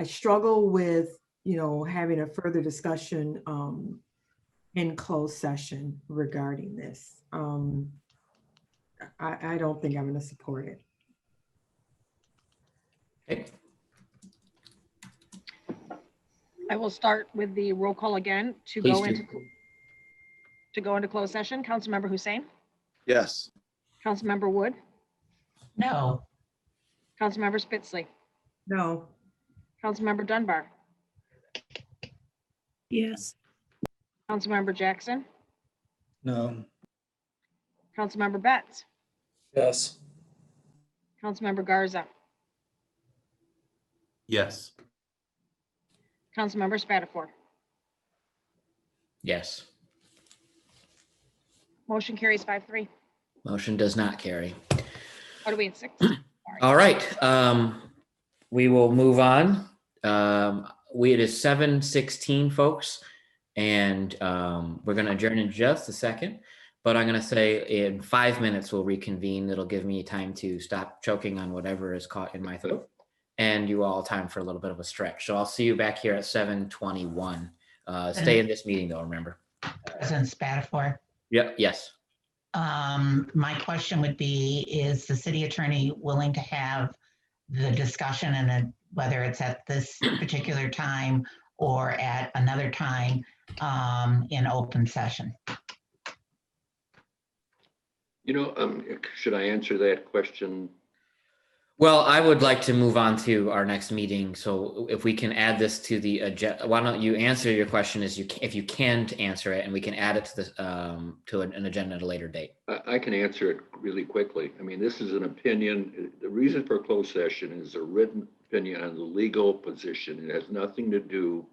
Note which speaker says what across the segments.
Speaker 1: I struggle with, you know, having a further discussion um in closed session regarding this. Um I, I don't think I'm going to support it.
Speaker 2: Okay.
Speaker 3: I will start with the roll call again to
Speaker 2: Please
Speaker 3: go
Speaker 2: do.
Speaker 3: into, to go into closed session. Councilmember Hussein,
Speaker 4: Yes.
Speaker 3: Councilmember Wood,
Speaker 2: No.
Speaker 3: Councilmember Spitzley,
Speaker 1: No.
Speaker 3: Councilmember Dunbar,
Speaker 5: Yes.
Speaker 3: Councilmember Jackson,
Speaker 6: No.
Speaker 3: Councilmember Betts,
Speaker 6: Yes.
Speaker 3: Councilmember Garza,
Speaker 4: Yes.
Speaker 3: Councilmember Spatafor.
Speaker 2: Yes.
Speaker 3: Motion carries five three.
Speaker 2: Motion does not carry.
Speaker 3: What are we at six?
Speaker 2: All right. Um, we will move on. Um, we, it is seven sixteen, folks. And, um, we're gonna adjourn in just a second. But I'm gonna say in five minutes, we'll reconvene. That'll give me time to stop choking on whatever is caught in my throat. And you all time for a little bit of a stretch. So I'll see you back here at seven twenty-one. Uh, stay in this meeting though, remember.
Speaker 7: President Spatafor,
Speaker 2: Yep, yes.
Speaker 7: um, my question would be, is the city attorney willing to have the discussion and then whether it's at this particular time or at another time, um, in open session?
Speaker 8: You know, um, should I answer that question?
Speaker 2: Well, I would like to move on to our next meeting. So if we can add this to the agenda, why don't you answer your question as you, ca- if you can to answer it and we can add it to the, um, to an an agenda at a later date.
Speaker 8: I, I can answer it really quickly. I mean, this is an opinion. The reason for closed session is a written opinion on the legal position. It has nothing to do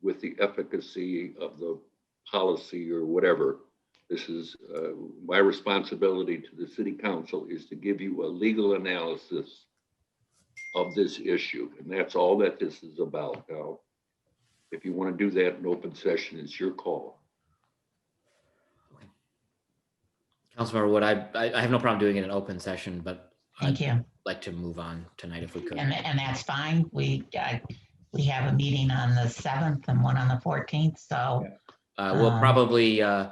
Speaker 8: with the efficacy of the policy or whatever. This is, uh, my responsibility to the city council is to give you a legal analysis of this issue, and that's all that this is about. Now, if you want to do that in open session, it's your call.
Speaker 2: Councilmember Wood, I, I I have no problem doing it in open session, but
Speaker 7: Thank
Speaker 2: I'd
Speaker 7: you.
Speaker 2: like to move on tonight if we could.
Speaker 7: And, and that's fine. We, uh, we have a meeting on the seventh and one on the fourteenth, so,
Speaker 2: Uh, we'll
Speaker 7: Um,
Speaker 2: probably, uh,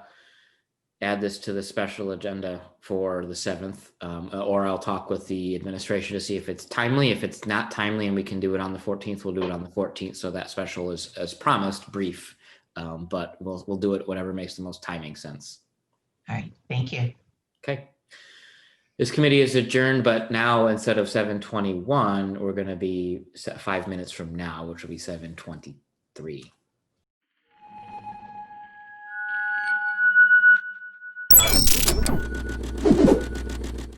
Speaker 2: add this to the special agenda for the seventh, um, or I'll talk with the administration to see if it's timely. If it's not timely and we can do it on the fourteenth, we'll do it on the fourteenth. So that special is, as promised, brief. Um, but we'll, we'll do it whatever makes the most timing sense.
Speaker 7: all right, thank you.
Speaker 2: Okay. This committee is adjourned, but now instead of seven twenty-one, we're gonna be set five minutes from now, which will be seven twenty-three.